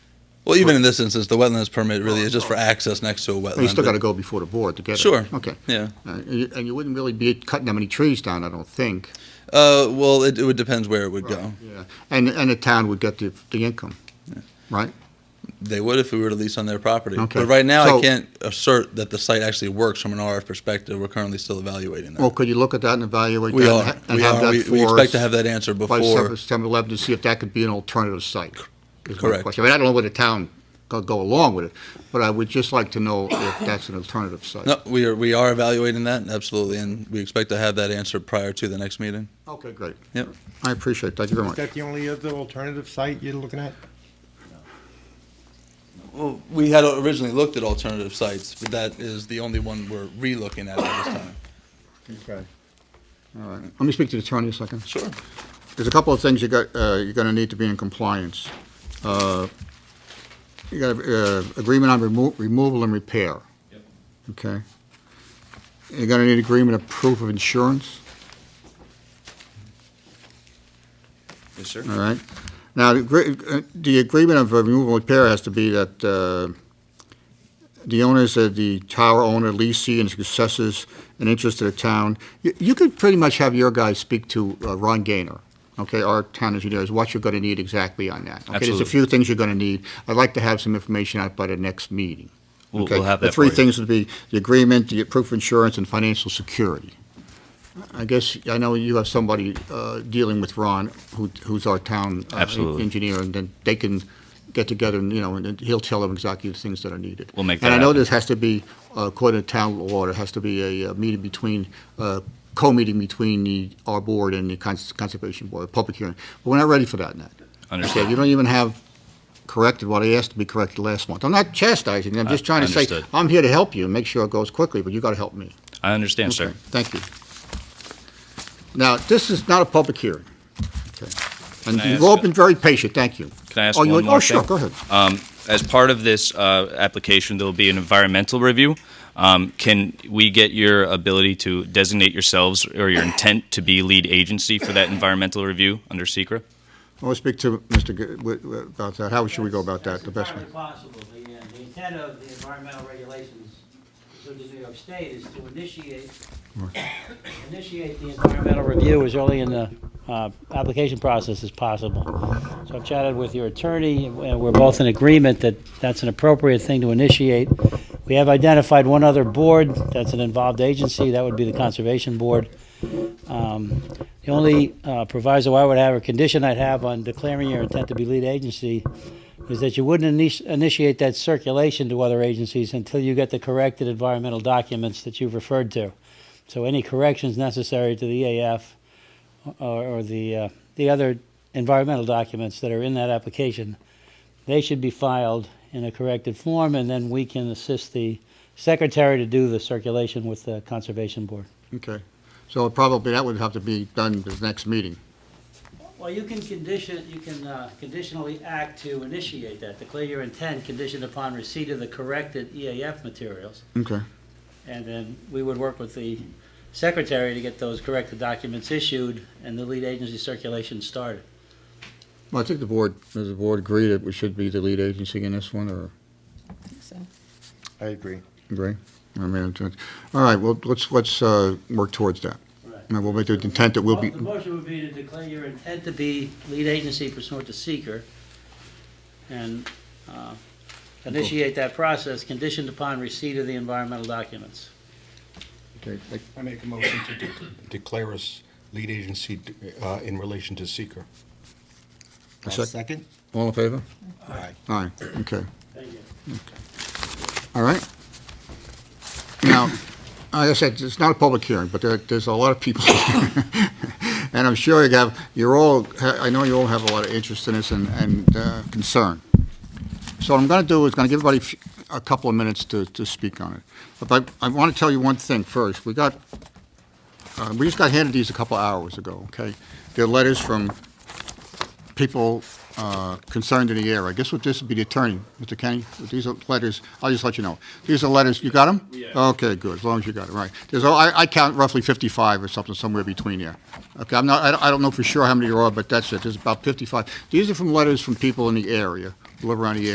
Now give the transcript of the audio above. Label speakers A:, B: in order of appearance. A: Well, even in this instance, the wetlands permit really is just for access next to a wetland.
B: Oh, You still got to
A: but-
B: go before the board to get it.
A: Sure.
B: Okay.
A: Yeah.
B: Uh, And you- and you wouldn't really be cutting that many trees down, I don't think.
A: Uh, well, it, it would depends where it would go.
B: Yeah. And, and the town would get the, the income, right?
A: They would if we were to lease on their property.
B: Okay.
A: But right now, I
B: So-
A: can't assert that the site actually works from an RF perspective. We're currently still evaluating that.
B: Well, could you look at that and evaluate
A: we
B: that?
A: are.
B: and ha- and
A: we
B: have
A: are.
B: that
A: We, we
B: for
A: expect to
B: us
A: have that answer
B: By
A: before.
B: September 11th, to see if that could be an alternative site. is my
A: Correct.
B: question. I mean, I don't know whether the town could go along with it, but I would just like to know if that's an alternative site.
A: No, we are. We are evaluating that absolutely, and we expect to have that answer prior to the next meeting.
B: Okay, great.
A: Yep.
B: I appreciate it. Thank you very
C: Is
B: much.
C: that the only other alternative site you're looking at?
A: Well, we had originally looked at alternative sites, but that is the only one we're re-looking at at this time.
C: Okay.
B: All right. Let me speak to the attorney a second.
A: Sure.
B: There's a couple of things you got, uh, you're gonna need to be in compliance. Uh, You got, uh, agreement on remo- removal and repair. Okay. You're gonna need agreement of proof of insurance,
D: Yes, sir.
B: all right? Now, the agree- uh, the agreement of removal and repair has to be that, uh, the owners of the tower owner, leasing and successors, and interest of the town. You, you could pretty much have your guys speak to uh, Ron Gaynor, okay, our town engineer, is what you're gonna need exactly on that. Okay, There's a
D: Absolutely.
B: few things you're gonna need. I'd like to have some information out by the next meeting.
D: We'll-
B: okay?
D: we'll have
B: The
D: that
B: three
D: for you.
B: things would be the agreement, the proof of insurance, and financial security. I guess, I know you have somebody uh, dealing with Ron, who, who's our town uh,
D: Absolutely.
B: engineer, and then they can get together and, you know, and he'll tell them exactly the things that are needed.
D: We'll make
B: And
D: that
B: I know
D: happen.
B: this has to be, uh, according to town law, there has to be a uh, meeting between, uh, co-meeting between the, our board and the Cons- Conservation Board, a public hearing. But we're not ready for that yet. Okay, You
D: Understood.
B: don't even have corrected what I asked to be corrected last month. I'm not chastising you, I'm just
D: Uh,
B: trying to say,
D: understood.
B: I'm here to help you, and make sure it goes quickly, but you gotta help me.
D: I understand, sir.
B: Okay, Thank you. Now, this is not a public hearing. Okay. And
D: Can I
B: you've
D: ask
B: all
D: a-
B: been very patient, thank you.
D: Can I ask
B: Oh, you
D: one
B: would-
D: more
B: Oh, sure,
D: thing?
B: go ahead.
D: As part of this uh, application, there will be an environmental review. Um, Can we get your ability to designate yourselves or your intent to be lead agency for that environmental review under secra
B: I want to speak to Mr. G- w- w- about that. How should we go about that, the best way?
E: That's entirely possible, the, uh, the intent of the environmental regulations of the New York State is to initiate, initiate the environmental review as early in the, uh, application process as possible. So I've chatted with your attorney, and we're both in agreement that that's an appropriate thing to initiate. We have identified one other board that's an involved agency, that would be the Conservation Board. Um, The only uh, proviso I would have, or condition I'd have on declaring your intent to be lead agency is that you wouldn't initi- initiate that circulation to other agencies until you get the corrected environmental documents that you've referred to. So any corrections necessary to the EAF or, or the, uh, the other environmental documents that are in that application, they should be filed in a corrected form, and then we can assist the secretary to do the circulation with the Conservation Board.
B: Okay. So probably that would have to be done this next meeting.
E: Well, you can condition, you can uh, conditionally act to initiate that, declare your intent conditioned upon receipt of the corrected EAF materials.
B: Okay.
E: And then we would work with the secretary to get those corrected documents issued and the lead agency circulation started.
B: Well, I think the board, does the board agree that we should be the lead agency in this one, or
F: So,
C: I agree.
B: agree? I mean, it's- all right, well, let's, let's uh, work towards that. And we'll make the intent that we'll be,
E: The motion would be to declare your intent to be lead agency pursuant to seeker and uh, initiate that process conditioned upon receipt of the environmental documents.
B: okay, like,
G: I make a motion to de- declare us lead agency uh, in relation to seeker.
B: A sec-
C: second?
B: all in favor?
G: Aye.
B: Aye, okay.
E: Thank you.
B: All right. Now, like I said, it's not a public hearing, but there, there's a lot of people here. And I'm sure you have, you're all, I know you all have a lot of interest in this and, and uh, concern. So what I'm gonna do is gonna give everybody f- a couple of minutes to, to speak on it. But I, I wanna tell you one thing first. We got, uh, we just got handed these a couple hours ago, okay? They're letters from people uh, concerned in the area. I guess what this would be the attorney, Mr. Kenny. These are letters, I'll just let you know. These are letters, you got them? Yeah. Okay, good, as long as you got it, right. There's, I I count roughly 55 or something, somewhere between there. Okay, I'm not, I don't- I don't know for sure how many there are, but that's it, there's about 55. These are from letters from people in the area, who live around the area.